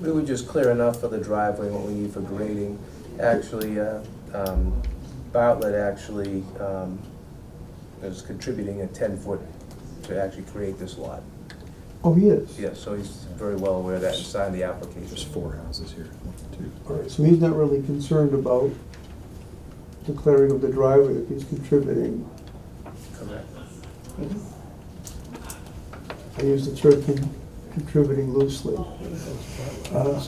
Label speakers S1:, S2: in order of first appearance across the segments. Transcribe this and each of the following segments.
S1: We were just clear enough for the driveway, what we need for grading. Actually, uh, um, Bartlett actually um, is contributing a ten-foot to actually create this lot.
S2: Oh, he is?
S1: Yeah, so he's very well aware of that and signed the application.
S3: There's four houses here, one, two.
S2: All right, so he's not really concerned about declaring of the driveway if he's contributing.
S1: Correct.
S2: I use the term con- contributing loosely. Uh,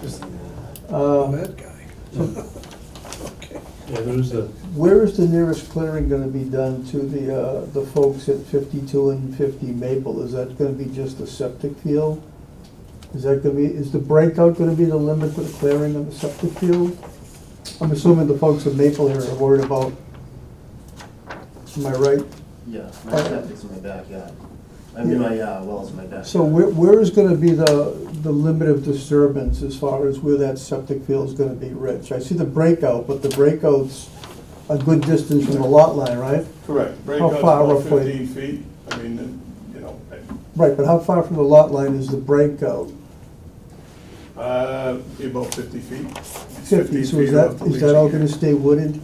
S4: Just
S2: Uh,
S4: that guy. Okay.
S5: Yeah, there's the,
S2: Where is the nearest clearing gonna be done to the, uh, the folks at fifty-two and fifty Maple? Is that gonna be just a septic field? Is that gonna be, is the breakout gonna be the limit to the clearing of the septic field? I'm assuming the folks at Maple here are worried about, am I right?
S6: Yeah, my septic's in my backyard. I mean, my uh, well's in my backyard.
S2: So where, where is gonna be the, the limit of disturbance as far as where that septic field is gonna be, Rich? I see the breakout, but the breakout's a good distance from the lot line, right?
S7: Correct,
S2: How
S7: breakout's
S2: far
S7: about
S2: roughly?
S7: fifteen feet, I mean, uh, you know,
S2: Right, but how far from the lot line is the breakout?
S7: uh, about fifty feet.
S2: Fifty,
S7: 15
S2: so is
S7: feet
S2: that,
S7: above the
S2: is that
S7: leaching
S2: all
S7: area.
S2: gonna stay wooded?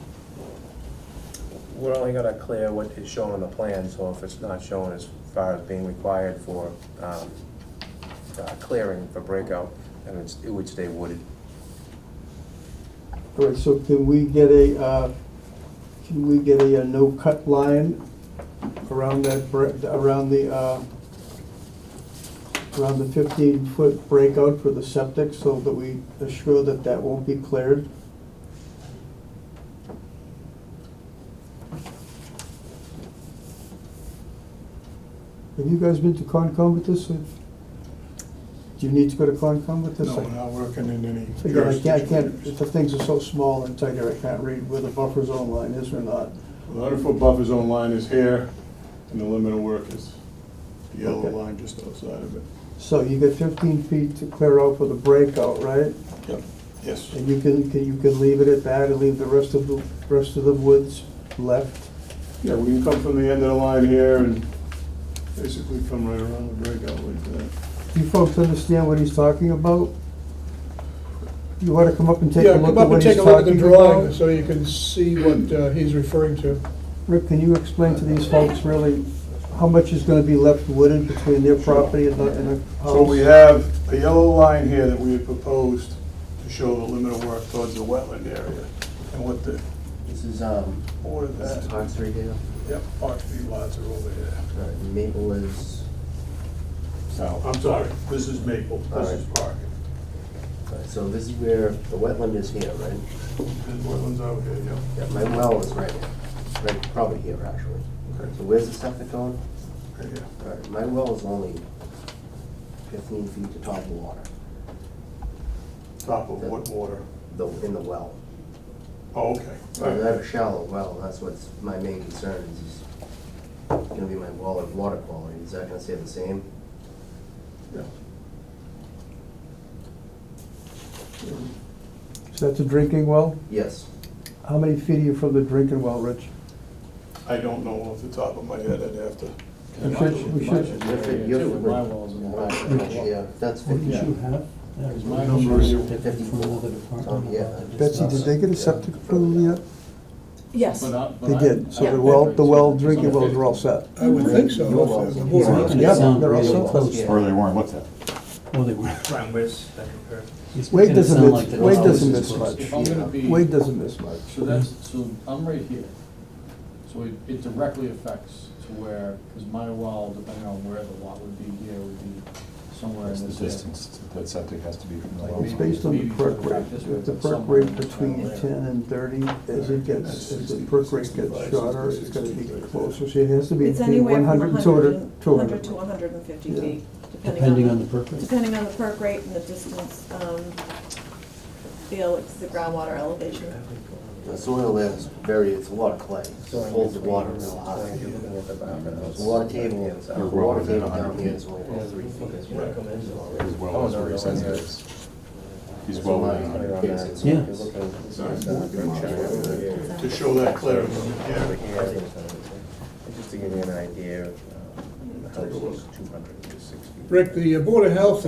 S1: We're only gonna clear what is shown on the plan, so if it's not shown as far as being required for um, uh, clearing for breakout, then it's, it would stay wooded.
S2: All right, so can we get a, uh, can we get a uh, no-cut line around that, bre- around the, uh, around the fifteen-foot breakout for the septic so that we assure that that won't be cleared? Have you guys been to Concom with this? Do you need to go to Concom with this?
S7: No, we're not working in any
S2: Again, I can't, I
S7: jurisdiction.
S2: can't, the things are so small and tight here, I can't read where the buffer zone line is or not.
S7: The hundred foot buffer zone line is here, and the limit of work is the yellow
S2: Okay.
S7: line just outside of it.
S2: So you get fifteen feet to clear out for the breakout, right?
S7: Yep. Yes,
S2: And you can, can- you can leave it at that and leave the rest of the, rest of the woods left.
S7: yeah, we can come from the end of the line here and basically come right around the breakout like that.
S2: Do you folks understand what he's talking about? You wanna come up and take a
S4: Yeah,
S2: look
S4: come
S2: at
S4: up and
S2: what he's
S4: take a look at the
S2: talking
S4: drawing
S2: about?
S4: so you can see what uh, he's referring to.
S2: Rick, can you explain to these folks really how much is gonna be left wooded between their property and the, and the house?
S7: So we have a yellow line here that we had proposed to show the limit of work towards the wetland area. And what the,
S6: This is, um,
S7: what is
S6: this is
S7: that?
S6: Oxford Dale.
S7: Yep, Park Street lots are over here.
S6: All right, uh, Maple is south.
S7: I'm sorry, this is Maple, this is Park.
S6: All right, So this is where the wetland is here, right?
S7: There's wetlands out here, yep.
S6: Yeah, my well is right here, right, probably here, actually. So where's the septic going?
S7: Right here.
S6: All right, my well is only fifteen feet to top of water,
S7: Top of what water?
S6: though, in the well.
S7: Oh, okay.
S6: I have a shallow well, that's what's my main concern is, is gonna be my well and water quality, is that gonna stay the same?
S7: Yeah.
S2: So that's a drinking well?
S6: Yes.
S2: How many feet are you from the drinking well, Rich?
S7: I don't know off the top of my head, I'd have to.
S2: We should, we should,
S6: You're fi- you're fi- Yeah, that's fifty.
S5: have?
S7: My number is
S6: Oh, yeah.
S2: Betsy, did they get a septic approval yet?
S8: Yes.
S2: They did, so the well, the well, drinking wells are all set.
S4: I would think so.
S6: Your well.
S4: The board
S5: It's not
S4: must
S5: gonna
S4: be-
S2: Yeah,
S5: sound
S2: they're all
S5: really
S2: so close.
S5: Yeah.
S3: Or they weren't looked at.
S5: Well, they were.
S1: Brian, where's that compared?
S5: It's
S2: Wade
S5: gonna
S2: doesn't
S5: sound
S2: miss-
S5: like the
S2: Wade
S5: house
S2: doesn't
S5: is
S2: miss
S5: close.
S2: much.
S9: If I'm gonna be,
S2: Wade doesn't miss much.
S9: so that's, so I'm right here, so it, it directly affects to where, because my well, depending on where the lot would be here, would be somewhere
S3: That's
S9: in
S3: the
S9: this
S3: distance that septic has to be from the
S2: It's
S3: well.
S2: based on the perk rate. If the perk rate between ten and thirty, as it gets, as the perk rate gets shorter, it's gonna be closer. So it has to be
S8: It's
S2: between
S8: anywhere
S2: one hundred
S8: from
S2: and two hundred, two hundred.
S8: to one hundred and fifty
S2: Yeah.
S8: feet, depending
S5: Depending on
S8: on,
S5: the purpose.
S8: depending on the perk rate and the distance, um, the, ele- the groundwater elevation.
S6: The soil there is very, it's a lot of clay, it holds the water real high. There's a water table, the water table down here is only about three feet.
S3: His well is where he says it is. He's well within a hundred.
S5: Yeah.
S7: To show that clearly, yeah.
S1: Just to give you an idea, uh, the house is two hundred and sixty.
S4: Rick, the uh, Board of Health